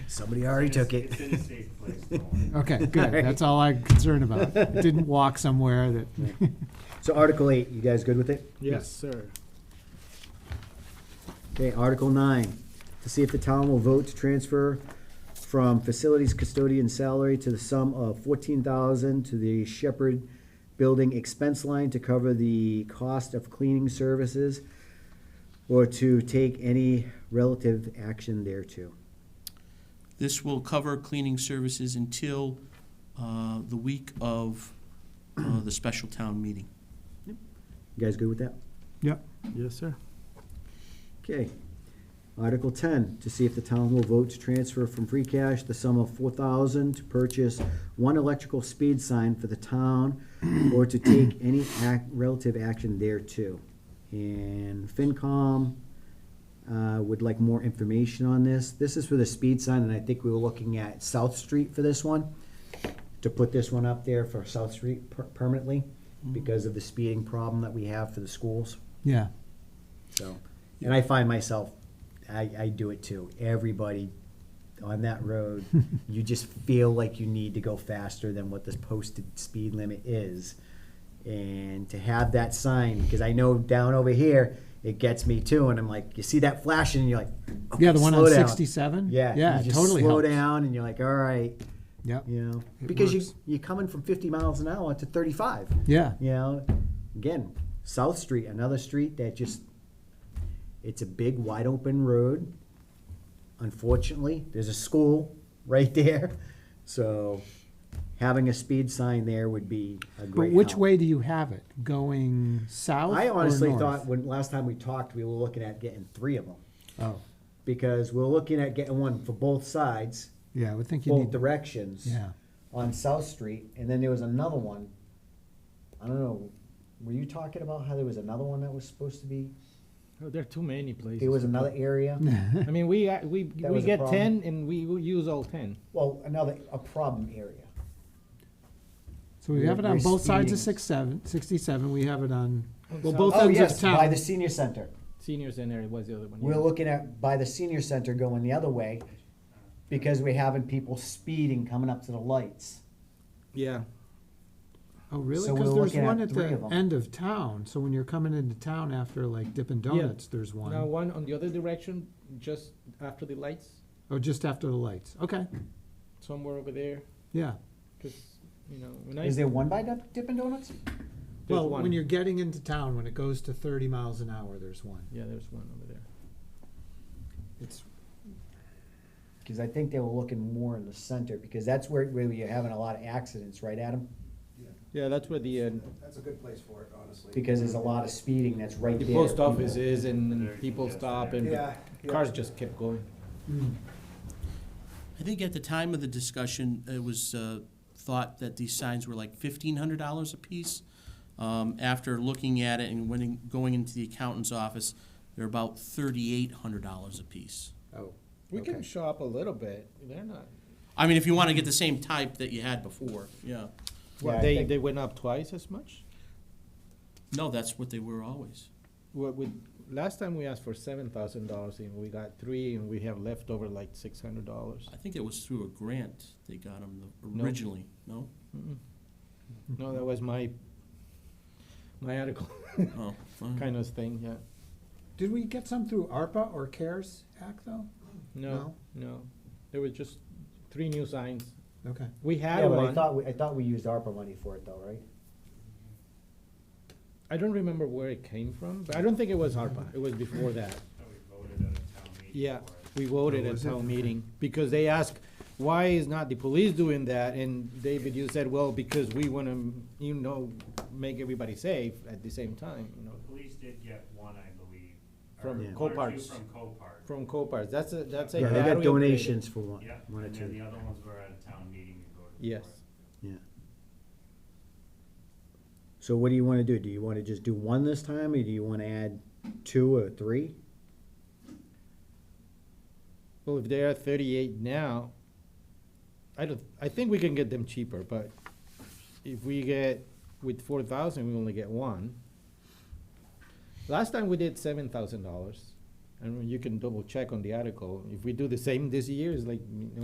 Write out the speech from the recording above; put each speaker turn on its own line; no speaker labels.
Somebody already took it.
It's in a safe place, don't worry.
Okay, good.
Alright.
That's all I'm concerned about. It didn't walk somewhere that,
So Article eight, you guys good with it?
Yes, sir.
Okay, Article nine, to see if the town will vote to transfer from facilities custodian salary to the sum of fourteen thousand to the Shepherd Building expense line to cover the cost of cleaning services or to take any relative action thereto.
This will cover cleaning services until uh, the week of uh, the special town meeting.
You guys good with that?
yep,
Yes, sir.
Okay. Article ten, to see if the town will vote to transfer from free cash the sum of four thousand to purchase one electrical speed sign for the town or to take any act, relative action thereto. And FinCom, uh, would like more information on this. This is for the speed sign, and I think we were looking at South Street for this one. To put this one up there for South Street per- permanently because of the speeding problem that we have for the schools.
yeah.
So, and I find myself, I, I do it too. Everybody on that road, you just feel like you need to go faster than what this posted speed limit is. And to have that sign, because I know down over here, it gets me too. And I'm like, you see that flashing, and you're like, okay,
Yeah, the one
slow
on
down.
sixty-seven?
Yeah,
Yeah,
you
it
just
totally
slow
helps.
down, and you're like, all right,
Yep,
you know,
It
because you
works.
you're coming from 50 miles an hour to 35.
yeah,
You know, again, South Street, another street that just, it's a big, wide open road. Unfortunately, there's a school right there, so having a speed sign there would be a
but
great
which
help.
way do you have it? Going south
I
or
honestly
north?
thought, when, last time we talked, we were looking at getting three of them,
Oh,
because we're looking at getting one for both sides,
yeah, I would think you
both
need,
directions.
yeah.
on South Street, and then there was another one. I don't know. Were you talking about how there was another one that was supposed to be?
Oh, There are too many places.
There was another area.
I mean, we, act- we,
That
we
was a
get
problem.
ten and we will use all ten.
Well, another a problem area.
So we have it
We're-
on
we're
both sides
speeding.
of six, seven, sixty-seven. We have it on, well,
south.
both
Oh
ends
yes,
of
by
town.
the senior center.
Senior center was the other one.
We're
yeah.
looking at by the senior center going the other way because we're having people speeding coming up to the lights.
Yeah,
Oh, really?
so we're
Cause there's
looking at
one at
three
the
of 'em.
end of town. So when you're coming into town after like Dippin'
Yeah.
Donuts, there's
now
one.
one on the other direction, just after the lights,
Oh, just after the lights. Okay,
somewhere over there,
yeah.
cause, you know, when I,
Is
there's
there one by Dip- Dippin' Donuts?
Well,
one.
when you're getting into town, when it goes to thirty miles an hour, there's one.
Yeah, there's one over there.
It's
Because I think they were looking more in the center because that's where where you're having a lot of accidents, right, Adam?
Yeah, that's where the, uh,
That's a good place for it, honestly.
Because there's a lot of speeding that's right
the
there.
post office
People-
is and
Very
and people
congested
stop and
Yeah.
the
yeah.
cars just kept going.
I think at the time of the discussion, it was uh, thought that these signs were like fifteen hundred dollars apiece. Um, After looking at it and when, in- going into the accountant's office, they're about thirty-eight hundred dollars apiece.
oh,
We can
Okay.
shop a little bit, they're not,
I mean, if you want to get the same type that you had before, yeah.
Yeah, I
they,
think-
they went up twice as much?
No, that's what they were always.
What we, last time we asked for seven thousand dollars and we got three and we have left over like six hundred dollars.
I think it was through a grant they got them
No.
originally, no?
No, that was my, my article
Oh, fine.
kind of thing, yeah.
did we get some through ARPA or CARES E Act though?
No, no, there was just three new signs.
Okay.
We had
Yeah, but I
one,
thought, we- I thought we used ARPA money for it though, right?
I don't remember where it came from, but I don't think it was ARPA, it was before that.
And we voted at a town meeting
Yeah,
for it.
we voted at town meeting, because they asked, why is not the police doing that? And David, you said, well, because we wanna, you know, make everybody safe at the same time, you know,
The police did get one, I believe. or
From
one or
Copart's.
two From Copart.
from Copart, that's a, that's a.
Yeah, they
battery
got
upgrade.
donations for one,
Yeah,
one or
and then
two,
the other ones were at a town meeting and voted for it.
Yes,
yeah. So what do you wanna do? Do you wanna just do one this time, or do you wanna add two or three?
well, if they are thirty-eight now, I don't, I think we can get them cheaper, but if we get, with four thousand, we only get one. Last time we did seven thousand dollars, and you can double check on the article, if we do the same this year, it's like, you know,